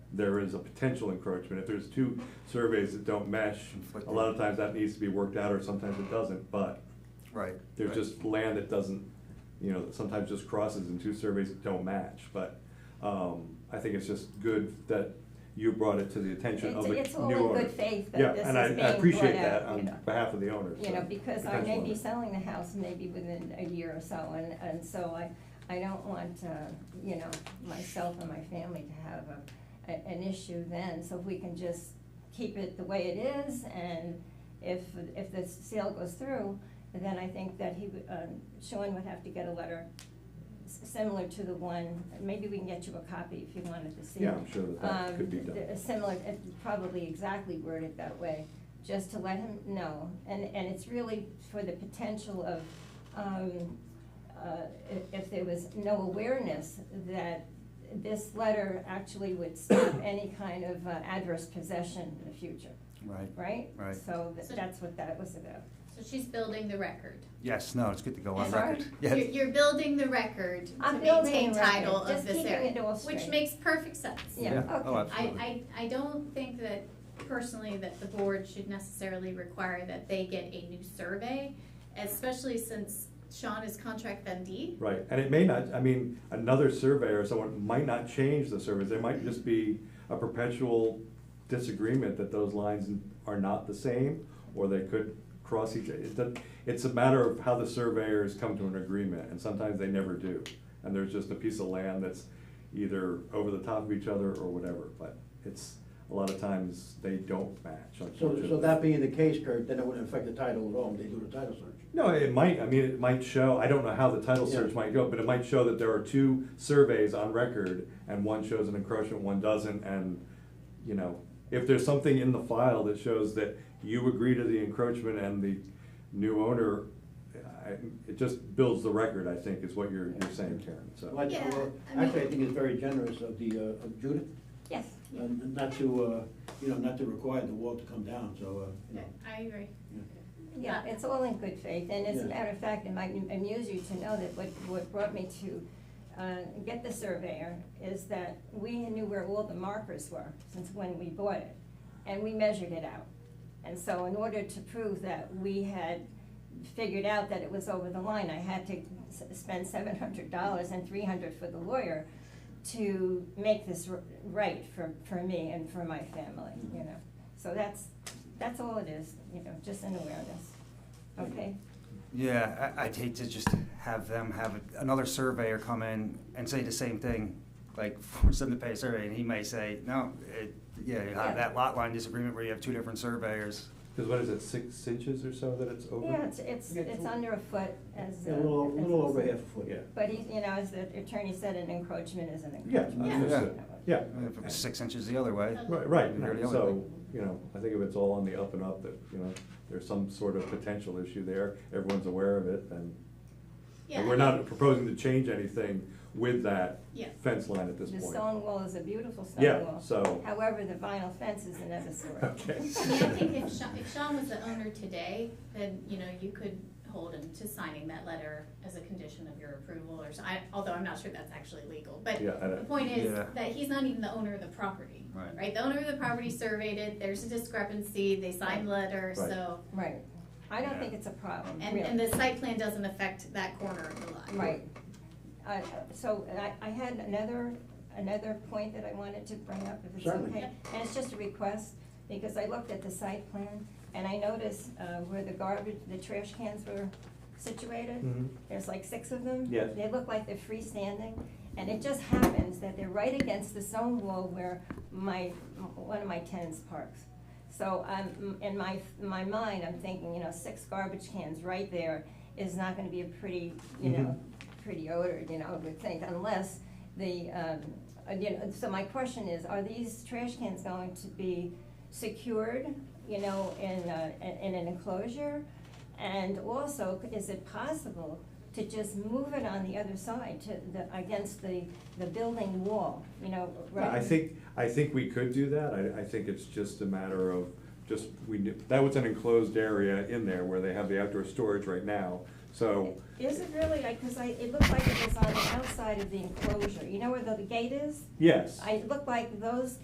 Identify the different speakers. Speaker 1: there is a potential encroachment. If there's two surveys that don't mesh, a lot of times that needs to be worked out, or sometimes it doesn't, but
Speaker 2: Right.
Speaker 1: there's
Speaker 2: right.
Speaker 1: just land that doesn't, you know, that sometimes just crosses and two surveys that don't match, but, um, I think it's just good that you brought it to the attention of
Speaker 3: It's,
Speaker 1: the new
Speaker 3: it's all in
Speaker 1: owner.
Speaker 3: good faith
Speaker 1: Yeah,
Speaker 3: that this is
Speaker 1: and
Speaker 3: being brought out,
Speaker 1: I,
Speaker 3: you know.
Speaker 1: I appreciate that on behalf of the owner.
Speaker 3: You
Speaker 1: so,
Speaker 3: know, because I
Speaker 1: potential
Speaker 3: may be
Speaker 1: owner.
Speaker 3: selling the house maybe within a year or so, and, and so I, I don't want, uh, you know, myself and my family to have a, a- an issue then, so if we can just keep it the way it is, and if, if the sale goes through, then I think that he, would- um, Sean would have to get a letter s- similar to the one, maybe we can get you a copy if you wanted to see.
Speaker 1: Yeah, I'm sure that that
Speaker 3: Um,
Speaker 1: could be done.
Speaker 3: th- Similar, uh, probably exactly worded that way, just to let him know. And, and it's really for the potential of, um, uh, i- if there was no awareness that this letter actually would stop any kind of uh, adverse possession in the future,
Speaker 2: Right.
Speaker 3: right?
Speaker 2: Right.
Speaker 3: So th- that's what that was about.
Speaker 4: So she's building the record.
Speaker 2: Yes, no, it's good to go on
Speaker 3: I'm
Speaker 2: record.
Speaker 3: sorry?
Speaker 4: You're,
Speaker 2: Yes.
Speaker 4: you're building the record to
Speaker 3: I'm building
Speaker 4: maintain
Speaker 3: the record,
Speaker 4: title of
Speaker 3: just
Speaker 4: this
Speaker 3: keeping it
Speaker 4: area,
Speaker 3: all
Speaker 4: which
Speaker 3: straight.
Speaker 4: makes perfect sense.
Speaker 3: Yeah, okay.
Speaker 2: Oh,
Speaker 4: I,
Speaker 2: absolutely.
Speaker 4: I, I don't think that personally that the board should necessarily require that they get a new survey, especially since Sean is contract vendee.
Speaker 1: Right, and it may not, I mean, another surveyor or someone might not change the surveys, there might just be a perpetual disagreement that those lines are not the same, or they could cross each, it doesn't- it's a matter of how the surveyors come to an agreement, and sometimes they never do. And there's just a piece of land that's either over the top of each other or whatever, but it's, a lot of times, they don't match,
Speaker 5: So,
Speaker 1: unfortunately.
Speaker 5: so that being the case, Kurt, then it wouldn't affect the title at all when they do the title search.
Speaker 1: No, it might, I mean, it might show, I don't know how the title search
Speaker 5: Yeah.
Speaker 1: might go, but it might show that there are two surveys on record, and one shows an encroachment, one doesn't, and, you know, if there's something in the file that shows that you agree to the encroachment and the new owner, I, it just builds the record, I think, is what you're, you're saying, Karen, so.
Speaker 5: Well, I-
Speaker 4: Yeah,
Speaker 5: well,
Speaker 4: I mean-
Speaker 5: Actually, I think it's very generous of the, uh, of Judith,
Speaker 3: Yes,
Speaker 5: uh, not to, uh, you know, not to require the wall to come down, so, uh, you
Speaker 4: Yeah,
Speaker 5: know.
Speaker 4: I agree.
Speaker 3: yeah, it's all in good faith, and as a
Speaker 5: Yeah.
Speaker 3: matter of fact, it might amuse you to know that what, what brought me to uh, get the surveyor is that we knew where all the markers were since when we bought it, and we measured it out. And so in order to prove that we had figured out that it was over the line, I had to s- spend seven hundred dollars and three hundred for the lawyer to make this r- right for, for me and for my family, you know? So that's, that's all it is, you know, just an awareness, okay?
Speaker 2: Yeah, I, I'd hate to just have them have another surveyor come in and say the same thing, like force them to pay a survey, and he may say, no, it, yeah, you
Speaker 3: Yeah.
Speaker 2: have that lot line disagreement where you have two different surveyors.
Speaker 1: Cause what is it, six inches or so that it's over?
Speaker 3: Yeah, it's, it's,
Speaker 5: Yeah,
Speaker 3: it's
Speaker 5: so-
Speaker 3: under a foot as.
Speaker 5: Yeah, A little,
Speaker 3: uh,
Speaker 5: a little
Speaker 3: as-
Speaker 5: over half a foot.
Speaker 1: Yeah.
Speaker 3: But he, you know, as the attorney said, an encroachment is an
Speaker 1: Yeah,
Speaker 3: encroachment.
Speaker 4: Yeah.
Speaker 1: understood. yeah,
Speaker 2: If it was six inches the other way.
Speaker 1: Right, right,
Speaker 2: You're the only
Speaker 1: so,
Speaker 2: thing.
Speaker 1: you know, I think if it's all on the up and up, that, you know, there's some sort of potential issue there, everyone's aware of it, then.
Speaker 4: Yeah,
Speaker 1: And we're
Speaker 4: I
Speaker 1: not
Speaker 4: think-
Speaker 1: proposing to change anything with that
Speaker 4: Yeah.
Speaker 1: fence line at this
Speaker 3: The
Speaker 1: point.
Speaker 3: stone wall is a beautiful stone
Speaker 1: Yeah,
Speaker 3: wall.
Speaker 1: so-
Speaker 3: However, the vinyl fence is another story.
Speaker 1: Okay.
Speaker 4: I mean, I think if Sean, if Sean was the owner today, then, you know, you could hold him to signing that letter as a condition of your approval or so, I, although I'm not sure that's actually legal, but
Speaker 1: Yeah, I don't-
Speaker 4: the point is
Speaker 2: Yeah.
Speaker 4: that he's not even the owner of the property.
Speaker 2: Right. Mm-hmm.
Speaker 4: The owner of the property surveyed it, there's a discrepancy, they signed the letter,
Speaker 1: Right.
Speaker 4: so,
Speaker 3: Right. I don't
Speaker 2: Yeah.
Speaker 3: think it's a problem,
Speaker 4: and,
Speaker 3: really.
Speaker 4: and the site plan doesn't affect that corner of the lot.
Speaker 3: Right. I- So I, I had another, another point that I wanted to bring up, if it's
Speaker 5: Certainly.
Speaker 3: okay. And it's just a request, because I looked at the site plan, and I noticed uh, where the garbage, the trash cans were situated.
Speaker 1: Mhm.
Speaker 3: There's like six of them.
Speaker 1: Yes.
Speaker 3: They look like they're freestanding, and it just happens that they're right against the stone wall where my, one of my tenants parks. So I'm, in my, my mind, I'm thinking, you know, six garbage cans right there is not gonna be a pretty, you know,
Speaker 1: Mm-hmm.
Speaker 3: pretty odor, you know, I would think, unless the, um, uh, you know, so my question is, are these trash cans going to be secured, you know, in, uh, in an enclosure? And also, is it possible to just move it on the other side to the, against the, the building wall, you know, right?
Speaker 1: I think, I think we could do that, I, I think it's just a matter of, just, we, knew- that was an enclosed area in there where they have the outdoor storage right now, so.
Speaker 3: Is it really, like, cause I, it looked like it was on the outside of the enclosure, you know where the gate is?
Speaker 1: Yes.
Speaker 3: I, it looked like those